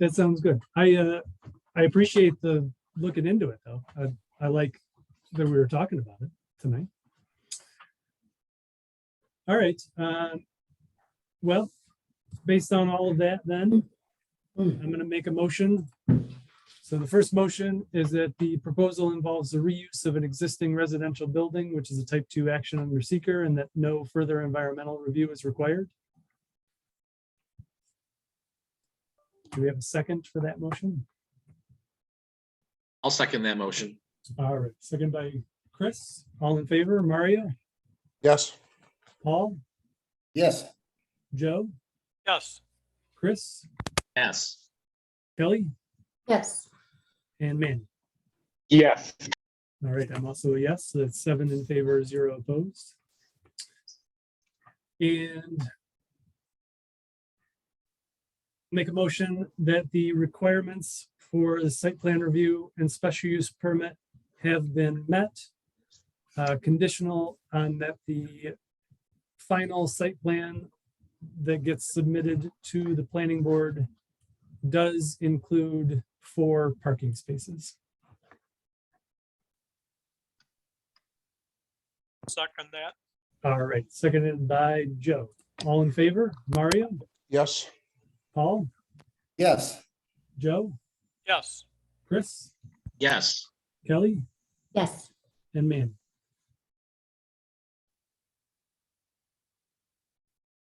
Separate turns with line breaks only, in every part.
That sounds good. I, uh, I appreciate the looking into it though. I, I like that we were talking about it tonight. All right, um, well, based on all of that, then I'm gonna make a motion. So the first motion is that the proposal involves the reuse of an existing residential building, which is a type two action under seeker and that no further environmental review is required. Do we have a second for that motion?
I'll second that motion.
All right, second by Chris. All in favor, Mario,
Yes.
Paul,
Yes.
Joe,
Yes,
Chris,
Yes.
Kelly,
Yes,
and Manny.
Yes,
All right, I'm also a yes, so that's seven in favor, zero opposed. And make a motion that the requirements for the site plan review and special use permit have been met. uh, Conditional on that the final site plan that gets submitted to the planning board does include four parking spaces.
second that.
All right, seconded by Joe. All in favor? Mario,
Yes.
Paul,
Yes.
Joe,
Yes,
Chris,
Yes.
Kelly,
yes,
and Manny.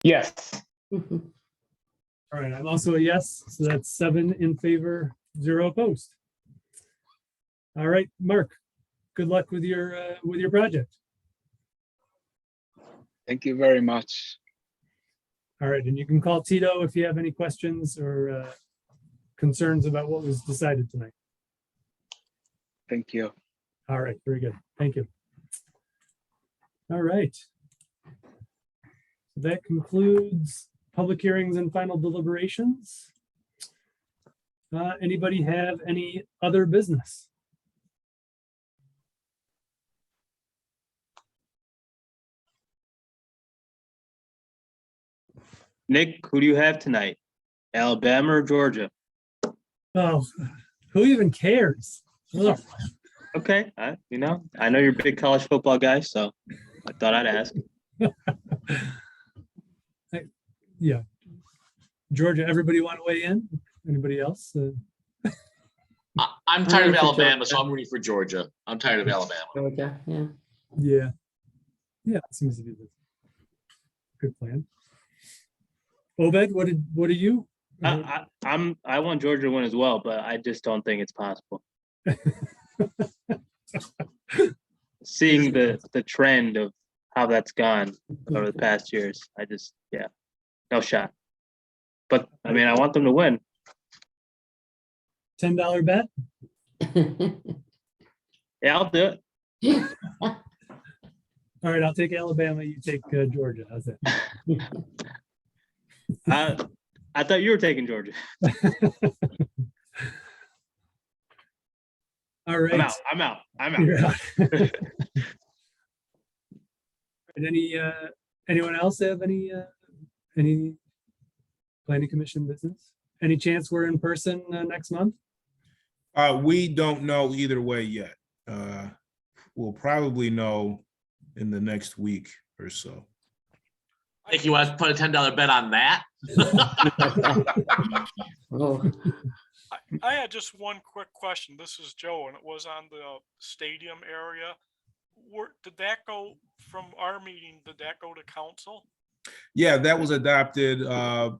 yes,
mhm,
All right, I'm also a yes, so that's seven in favor, zero opposed. All right, Mark, good luck with your, uh, with your project.
thank you very much.
All right, and you can call Tito if you have any questions or uh, concerns about what was decided tonight.
Thank you.
All right, very good. Thank you. All right. That concludes public hearings and final deliberations. Uh, Anybody have any other business?
Nick, who do you have tonight? Alabama or Georgia?
Oh, who even cares? Ugh,
Okay, I, you know, I know you're a big college football guy, so I thought I'd ask.
Georgia, everybody want to weigh in? Anybody else? Uh,
I, I'm tired of
Rooting for
Alabama, so I'm rooting for Georgia. I'm tired of Alabama.
Georgia, yeah.
Yeah. Yeah, seems to be the good plan. Obed, what did, what are you? Uh,
I, I, I'm, I want Georgia to win as well, but I just don't think it's possible. Seeing the, the trend of how that's gone over the past years, I just, yeah, no shot. But I mean, I want them to win.
Ten dollar bet?
Yeah, I'll do it.
All right, I'll take Alabama. You take uh, Georgia. How's that?
I, I thought you were taking Georgia.
All
I'm
right.
out, I'm out, I'm out.
You're out. And any, uh, anyone else have any, uh, any planning commission business? Any chance we're in person uh, next month?
Uh, we don't know either way yet. Uh, we'll probably know in the next week or so.
I think you want to put a ten dollar bet on that?
Oh,
I had just one quick question. This is Joe, and it was on the stadium area. Where, did that go from our meeting? Did that go to council?
Yeah, that was adopted, uh,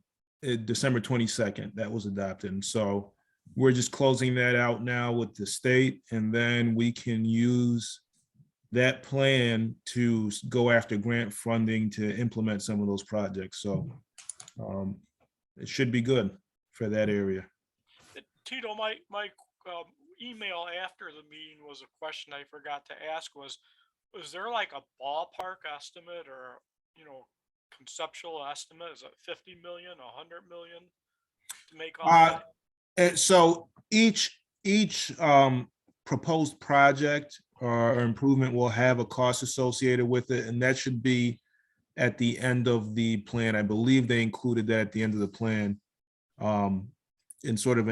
in December twenty-second, that was adopted. And so we're just closing that out now with the state and then we can use that plan to s- go after grant funding to implement some of those projects. So, um, it should be good for that area.
Uh, Tito, my, my um, email after the meeting was a question I forgot to ask was, was there like a ballpark estimate or, you know, conceptual estimate? Is it 50 million, 100 million to make? all
Uh,
that?
And so each, each um proposed project or improvement will have a cost associated with it, and that should be at the end of the plan. I believe they included that at the end of the plan. Um, in sort of an